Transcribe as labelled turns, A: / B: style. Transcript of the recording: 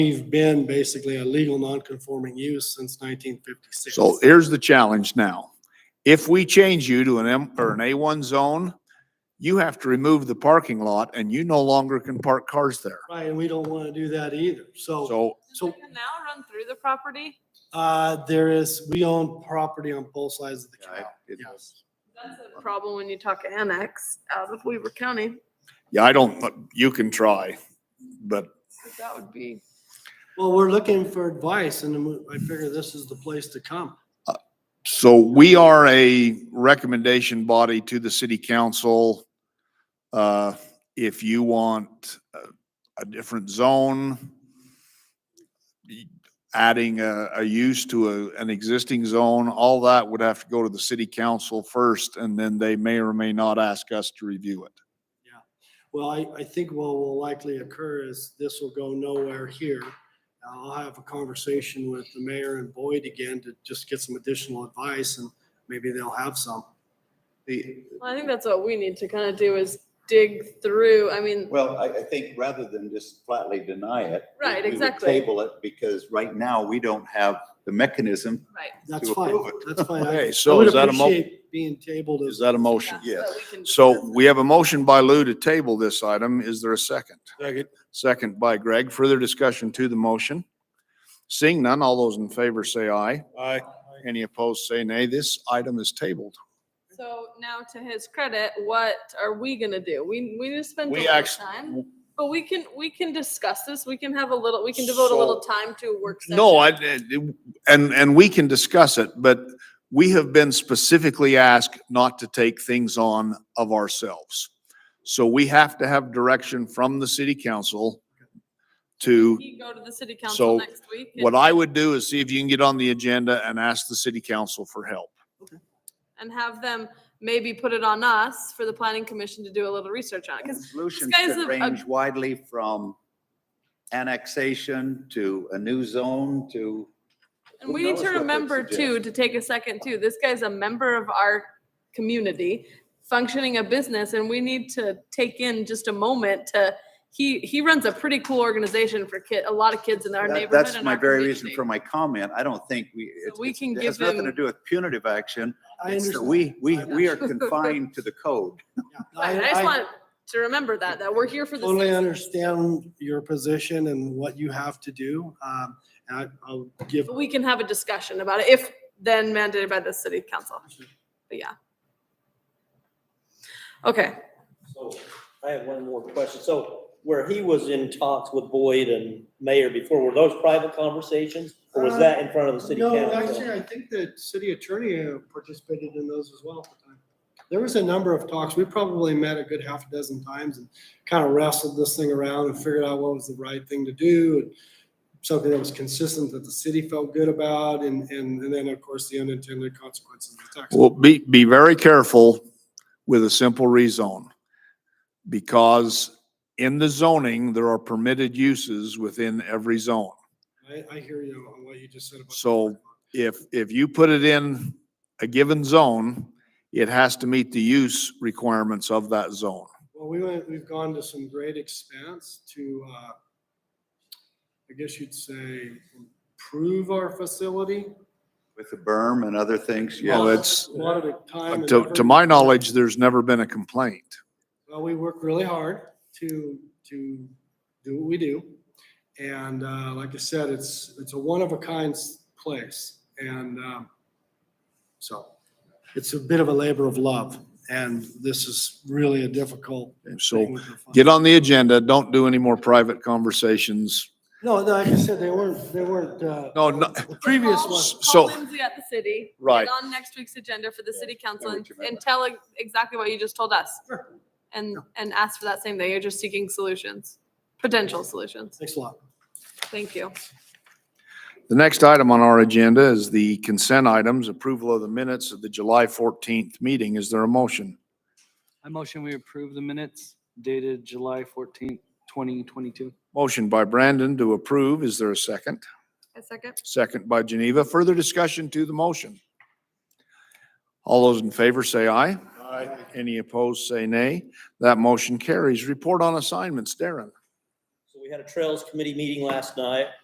A: We've been basically a legal non-conforming use since nineteen fifty-six.
B: So here's the challenge now. If we change you to an M or an A1 zone, you have to remove the parking lot and you no longer can park cars there.
A: Right, and we don't want to do that either. So,
B: So
A: So-
C: Does the canal run through the property?
A: uh, there is, we own property on both sides of the
B: Yeah,
A: canal.
B: it-
A: Yes.
C: That's a problem when you talk annex out of Weaver County,
B: Yeah, I don't, but you can try, but
C: that would be.
A: Well, we're looking for advice and we- I figure this is the place to come.
B: so we are a recommendation body to the city council. Uh, if you want a, a different zone, y- adding a, a use to a, an existing zone, all that would have to go to the city council first and then they may or may not ask us to review it.
A: Well, I, I think what will likely occur is this will go nowhere here. I'll have a conversation with the mayor and Boyd again to just get some additional advice and maybe they'll have some.
D: The,
C: Well, I think that's what we need to kind of do is dig through, I mean,
D: well, I, I think rather than just flatly deny it. we-
C: Right,
D: we would
C: exactly.
D: Table it because right now we don't have the mechanism.
C: right.
A: That's
D: To
A: fine.
D: approve it.
A: That's fine. I-
B: Okay,
A: I
B: so
A: would
B: is that a mo-
A: appreciate Being tabled
B: Is
A: as,
B: that a motion?
D: Yes.
C: that we can
B: So
C: discuss
B: we have a motion by Lou to table this item. Is there a second?
E: Second.
B: Second by Greg. Further discussion to the motion? Seeing none, all those in favor say aye.
E: Aye.
B: Any opposed say nay. This item is tabled.
C: it. So now to his credit, what are we gonna do? We, we just spent a
B: We
C: little
B: act-
C: time, but we can, we can discuss this, we can have a little, we can devote a little
B: So-
C: time to a work session.
B: No, I, eh, and, and we can discuss it, but we have been specifically asked not to take things on of ourselves. So we have to have direction from the city council to
C: You go to the city
B: So
C: council next week. and-
B: What I would do is see if you can get on the agenda and ask the city council for help.
C: and have them maybe put it on us for the planning commission to do a little research on it. Because
D: Solutions
C: guy's
D: could
C: a- a-
D: range widely from annexation to a new zone to.
C: and
D: Who
C: we need
D: knows
C: to
D: what they
C: remember too
D: suggest.
C: to take a second too. This guy's a member of our community, functioning a business, and we need to take in just a moment to. He he runs a pretty cool organization for kid a lot of kids in our
D: That-
C: neighborhood.
D: That's
C: and
D: my
C: our
D: very reason
C: community.
D: for my comment. I don't think we. it's-
C: we
D: it's-
C: can
D: It has
C: give
D: nothing to
C: them-
D: do with punitive action.
A: I
D: It's that
A: understand.
D: we, we,
A: I
D: we are confined to the code.
A: Yeah.
C: Right, I just
A: I-
C: want to remember that that we're here for the.
A: Totally
C: citizens.
A: understand your position and what you have to do. Um, and I, I'll give,
C: But we can have a discussion about it if then mandated by the city council. But yeah. Okay,
F: So I have one more question. So where he was in talks with Boyd and Mayor before, were those private conversations? Or was that in front of the city
A: Uh, no, actually,
F: council?
A: I think the city attorney uh, participated in those as well. at the time. There was a number of talks. We probably met a good half a dozen times and kind of wrestled this thing around and figured out what was the right thing to do. and Something that was consistent that the city felt good about and, and, and then of course the unintended consequences of the tax.
B: Well, be, be very careful with a simple rezone. Because in the zoning, there are permitted uses within every zone.
A: I, I hear you on what you just said about.
B: So- If, if you put it in a given zone, it has to meet the use requirements of that zone.
A: Well, we went, we've gone to some great expense to, uh, I guess you'd say, improve our facility.
D: With the berm and other things,
B: Well,
D: yes.
B: it's,
A: A lot of time. and
B: to,
A: effort.
B: to my knowledge, there's never been a complaint.
A: Well, we work really hard to, to do what we do. And, uh, like I said, it's, it's a one-of-a-kind s- place. And, um, so it's a bit of a labor of love. And this is really a difficult
B: So
A: thing with the fund.
B: get on the agenda. Don't do any more private conversations.
A: No, no, like I said, they weren't, they weren't, uh,
B: No, no,
A: the previous
C: Call-
A: one.
B: So-
C: Call Lindsay at the city.
B: Right.
C: Get on next week's agenda for the city council
D: what
C: and,
D: you
C: and
D: meant.
C: tell ex- exactly what you just told us.
A: Sure.
C: And, and ask for that same thing. You're just seeking solutions, potential solutions.
A: Thanks a lot.
C: Thank you.
B: The next item on our agenda is the consent items, approval of the minutes of the July 14th meeting. Is there a motion?
G: I motion we approve the minutes dated July fourteenth, twenty twenty-two.
B: Motion by Brandon to approve. Is there a second?
C: A second?
B: Second by Geneva. Further discussion to the motion? All those in favor say aye. Aye. Any opposed, say nay. That motion carries. Report on assignments, Darren.
F: So we We had a Trails Committee meeting last night.